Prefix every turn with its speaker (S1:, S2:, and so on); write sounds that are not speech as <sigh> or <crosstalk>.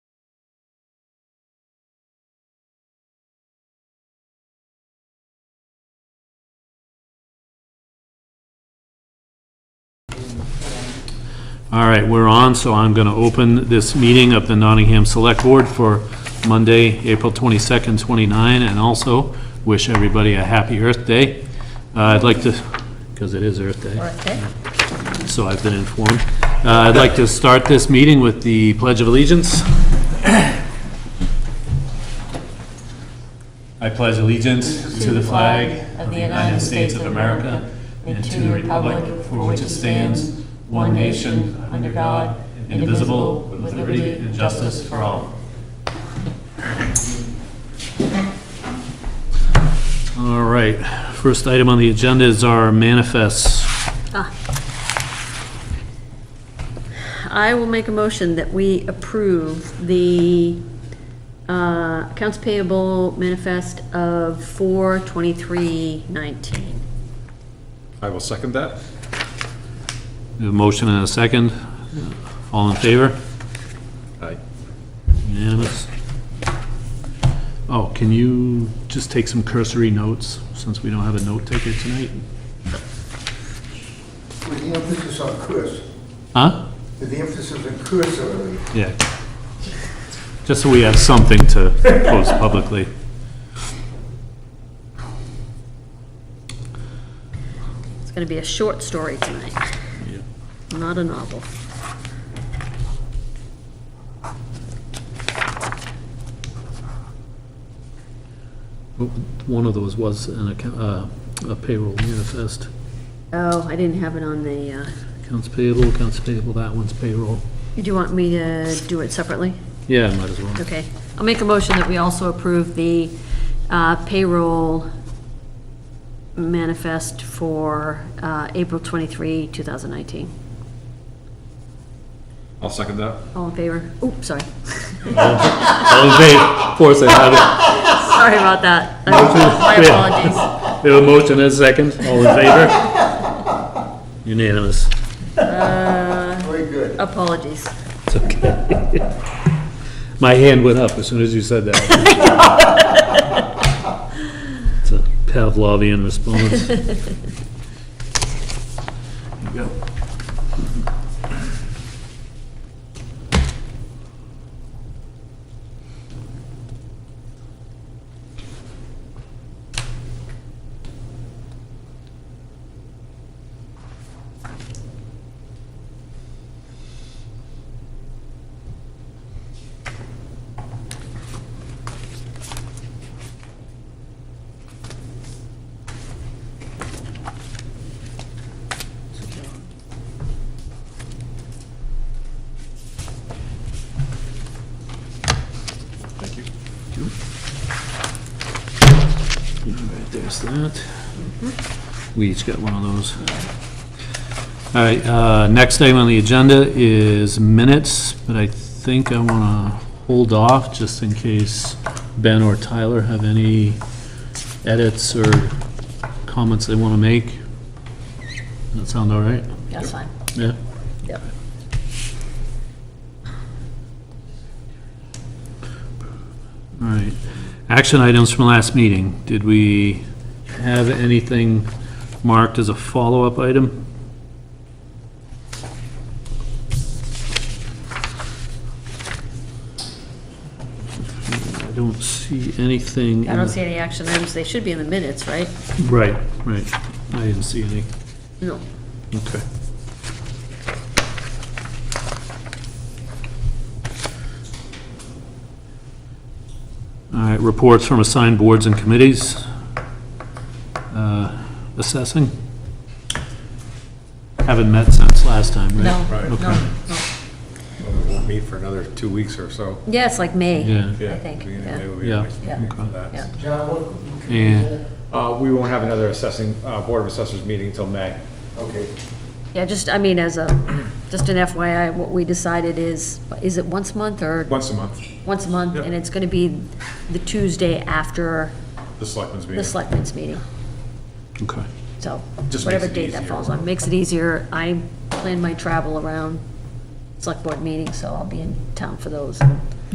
S1: All right, we're on, so I'm going to open this meeting of the Nottingham Select Board for Monday, April 22nd, 29, and also wish everybody a happy Earth Day. Uh, I'd like to, because it is Earth Day. so I've been informed. Uh, I'd like to start this meeting with the Pledge of Allegiance. I pledge allegiance to the flag of the United States of America and to the republic for which it stands, one nation, under God, indivisible, with liberty and justice for all. All right, first item on the agenda is our manifests.
S2: I will make a motion that we approve the uh, accounts payable manifest of four twenty-three nineteen.
S3: I will second that.
S1: We have A motion and a second. All in favor?
S3: Aye.
S1: Unanimous? Oh, can you just take some cursory notes, since we don't have a note taker tonight?
S4: With the emphasis on curse,
S1: Huh?
S4: with the emphasis on cursory.
S1: Yeah. Just so we have something to post publicly.
S2: It's gonna be a short story tonight, not a novel.
S1: One of those was an account, uh, a payroll manifest.
S2: Oh, I didn't have it on the, uh,
S1: Accounts payable, accounts payable, that one's payroll.
S2: do you want me to do it separately?
S1: Yeah, might as well.
S2: Okay, I'll make a motion that we also approve the uh, payroll manifest for uh, April 23, 2019.
S3: I'll second that.
S2: All in favor? Oop, sorry.
S1: All in favor? Of course I have it.
S2: Sorry about that. My apologies.
S1: We have a motion and a second. All in favor? Unanimous.
S4: Very good.
S2: Apologies.
S1: It's okay. <laughs> My hand went up as soon as you said that. It's a Pavlovian response. There you go.
S3: Thank you.
S1: All right, There's that. We each got one of those. All right, uh, next item on the agenda is minutes, but I think I want to hold off just in case Ben or Tyler have any edits or comments they want to make. That sound all right?
S2: That's fine.
S1: Yeah?
S2: Yep.
S1: All right. Action items from last meeting. Did we have anything marked as a follow-up item? I don't see anything.
S2: I
S1: in
S2: don't
S1: the-
S2: see any action items. They should be in the minutes, right?
S1: Right, right. I didn't see any.
S2: No.
S1: Okay. All right, reports from assigned boards and committees. Uh, Assessing? Haven't met since last time, right?
S2: No,
S3: Right.
S2: no,
S1: Okay.
S2: no.
S3: Well, we won't meet for another two weeks or so.
S2: Yeah, it's like May.
S1: Yeah,
S3: Yeah,
S2: think,
S3: beginning of
S2: yeah.
S3: May will be
S1: Yeah,
S3: the next meeting for
S1: okay.
S3: that.
S2: Yeah.
S4: John, what?
S1: Yeah.
S3: Uh, we won't have another assessing, uh, Board of Assessors meeting until May.
S4: Okay.
S2: Yeah, just, I mean, as a, just an FYI, what we decided is, is it once a month or
S3: Once a month,
S2: once a month?
S3: Yep.
S2: And it's going to be the Tuesday after
S3: the selectmen's meeting.
S2: the selectmen's meeting.
S1: Okay.
S2: So
S3: Just
S2: whatever
S3: makes it
S2: date that
S3: easier.
S2: falls on, makes it easier. I plan my travel around select board meetings, so I'll be in town for those.